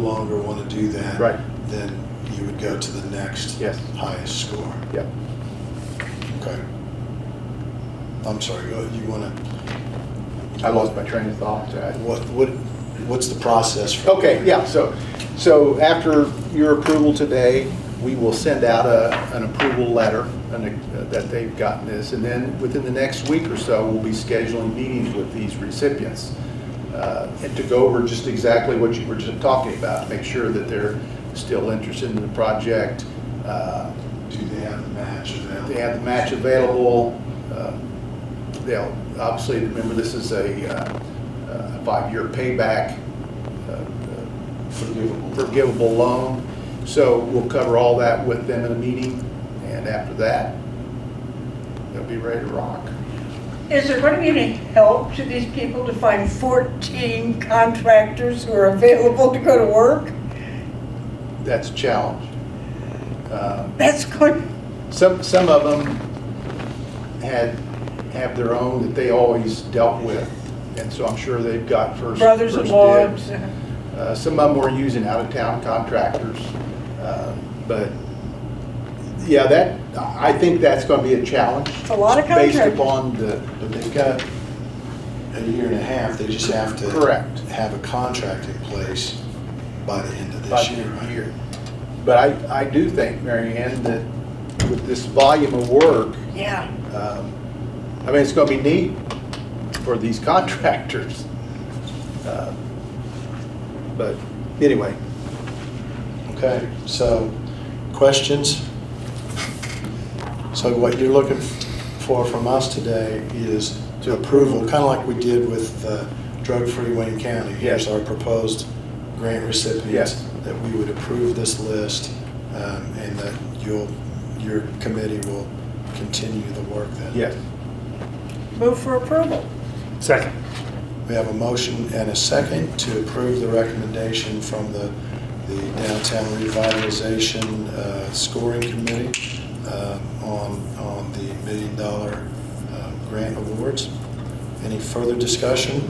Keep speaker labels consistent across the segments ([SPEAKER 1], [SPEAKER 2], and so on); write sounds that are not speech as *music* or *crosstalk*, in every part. [SPEAKER 1] longer want to do that,
[SPEAKER 2] Right.
[SPEAKER 1] then you would go to the next
[SPEAKER 2] Yes.
[SPEAKER 1] highest score.
[SPEAKER 2] Yep.
[SPEAKER 1] Okay. I'm sorry. uh, You want to
[SPEAKER 2] I lost my train of thought. I-
[SPEAKER 1] what? What? What's the process? For
[SPEAKER 2] Okay, yeah, so, so after your approval today, we will send out a, an approval letter an- uh, that they've gotten this, and then within the next week or so, we'll be scheduling meetings with these recipients uh, and to go over just exactly what you were just talking about, make sure that they're still interested in the project, uh,
[SPEAKER 1] Do they have the match? Or
[SPEAKER 2] they have the match available. Uh, They'll, obviously, remember, this is a uh, uh, five-year payback uh, uh,
[SPEAKER 1] forgivable.
[SPEAKER 2] forgivable loan. So we'll cover all that with them in a meeting, and after that, they'll be ready to rock.
[SPEAKER 3] Is there going to be any help to these people to find 14 contractors who are available to go to work?
[SPEAKER 2] That's a challenge. Uh,
[SPEAKER 3] That's good.
[SPEAKER 2] Some, some of them had, have their own that they always dealt with, and so I'm sure they've got first. first
[SPEAKER 3] Brothers-in-law.
[SPEAKER 2] dibs. Uh, Some of them were using out-of-town contractors, uh, but, yeah, that, I think that's gonna be a challenge.
[SPEAKER 3] It's a lot of
[SPEAKER 2] Based
[SPEAKER 3] contractors.
[SPEAKER 2] upon the,
[SPEAKER 1] But they've got a year and a half. They just have to
[SPEAKER 2] Correct.
[SPEAKER 1] have a contract in place by the end of this
[SPEAKER 2] by the
[SPEAKER 1] year.
[SPEAKER 2] end of the
[SPEAKER 1] right?
[SPEAKER 2] year. But I, I do think, Mary Ann, that with this volume of work,
[SPEAKER 3] Yeah.
[SPEAKER 2] um, I mean, it's gonna be neat for these *laughs* contractors. Uh, But, anyway,
[SPEAKER 1] Okay, so questions? So what you're looking for from us today is to approval, kind of like we did with uh, drug-free Wayne County. Here's
[SPEAKER 2] Yes.
[SPEAKER 1] our proposed grant recipients,
[SPEAKER 2] Yes.
[SPEAKER 1] that we would approve this list um, and that you'll, your committee will continue the work then.
[SPEAKER 2] yes,
[SPEAKER 3] Move for approval.
[SPEAKER 4] Second.
[SPEAKER 1] We have a motion and a second to approve the recommendation from the the Downtown Revitalization uh, Scoring Committee um, on on the million-dollar grant awards. Any further discussion?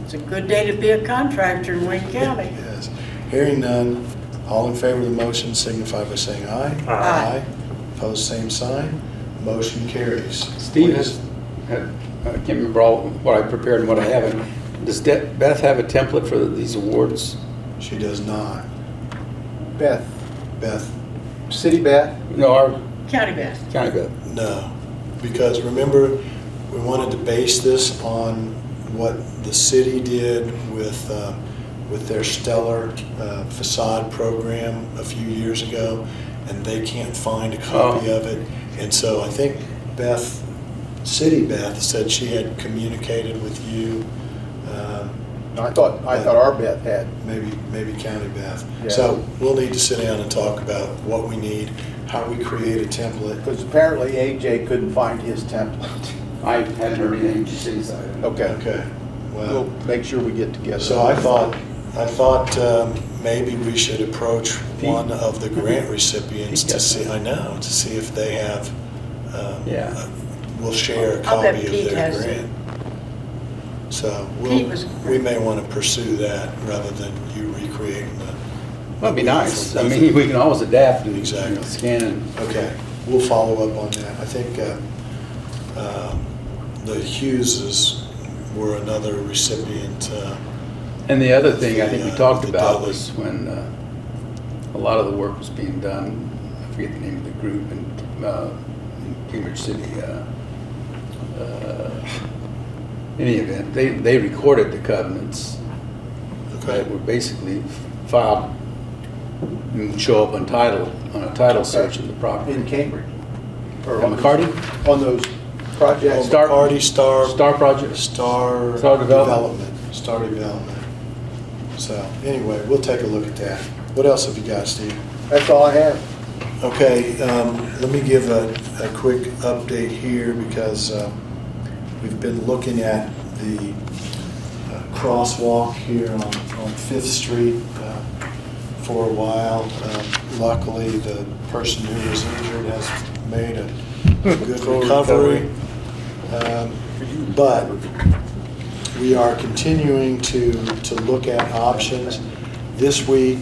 [SPEAKER 3] It's a good day to be a contractor in Wayne County.
[SPEAKER 1] Yes. Hearing none, all in favor of the motion signify by saying aye.
[SPEAKER 4] Aye.
[SPEAKER 3] Aye.
[SPEAKER 1] Opposed, same sign. Motion carries.
[SPEAKER 5] Steve has, I can't remember all what I prepared and what I haven't. Does De- Beth have a template for these awards?
[SPEAKER 1] She does not.
[SPEAKER 2] Beth,
[SPEAKER 1] Beth,
[SPEAKER 2] City Beth,
[SPEAKER 5] No, our
[SPEAKER 3] County Best.
[SPEAKER 5] county Beth.
[SPEAKER 1] No, because remember, we wanted to base this on what the city did with, uh, with their stellar uh, facade program a few years ago, and they can't find a copy
[SPEAKER 5] Oh.
[SPEAKER 1] of it. And so I think Beth, City Beth, said she had communicated with you, um,
[SPEAKER 2] I thought, I thought our Beth had.
[SPEAKER 1] maybe, maybe County Beth.
[SPEAKER 2] Yeah.
[SPEAKER 1] So we'll need to sit down and talk about what we need, how we create a template,
[SPEAKER 2] Because apparently AJ couldn't find his template. *laughs*
[SPEAKER 5] I hadn't heard anything from city side.
[SPEAKER 2] Okay,
[SPEAKER 1] Okay,
[SPEAKER 2] we'll
[SPEAKER 1] well,
[SPEAKER 2] make sure we get together.
[SPEAKER 1] so I thought, I thought um, maybe we should approach one of the grant recipients to see, I know, to see if they have, um,
[SPEAKER 5] Oh, Yeah.
[SPEAKER 1] will share a
[SPEAKER 3] I'll bet
[SPEAKER 1] copy of
[SPEAKER 3] Pete
[SPEAKER 1] their
[SPEAKER 3] has it.
[SPEAKER 1] grant. So
[SPEAKER 3] Pete
[SPEAKER 1] we'll,
[SPEAKER 3] was-
[SPEAKER 1] we may want to pursue that rather than you recreating the,
[SPEAKER 5] That'd be nice. I mean, we can always adapt and
[SPEAKER 1] Exactly.
[SPEAKER 5] scan and.
[SPEAKER 1] okay, we'll follow up on that. I think uh, um, the Hugheses were another recipient, uh,
[SPEAKER 5] And the other thing I think we
[SPEAKER 1] The, uh,
[SPEAKER 5] talked
[SPEAKER 1] the
[SPEAKER 5] about
[SPEAKER 1] dollar.
[SPEAKER 5] was when uh, a lot of the work was being done, I forget the name of the group in uh, in Cambridge City. uh, uh, Any event, they, they recorded the covenants
[SPEAKER 1] okay?
[SPEAKER 5] that were basically filed and would show up on title, on a title search of the
[SPEAKER 2] In
[SPEAKER 5] property.
[SPEAKER 2] Cambridge. Or
[SPEAKER 5] And
[SPEAKER 2] on-
[SPEAKER 5] McCarty?
[SPEAKER 2] On those projects.
[SPEAKER 5] Star-
[SPEAKER 1] McCarty, Star.
[SPEAKER 5] Star Project,
[SPEAKER 1] Star.
[SPEAKER 5] Star Development.
[SPEAKER 1] Star Development. So, anyway, we'll take a look at that. What else have you got, Steve?
[SPEAKER 2] That's all I have.
[SPEAKER 1] Okay, um, let me give a, a quick update here because, um, we've been looking at the uh, crosswalk here on, on Fifth Street, uh, for a while. Um, Luckily, the person who was injured has made a good
[SPEAKER 5] Full
[SPEAKER 1] recovery. Um, But we are continuing to, to look at options. This week,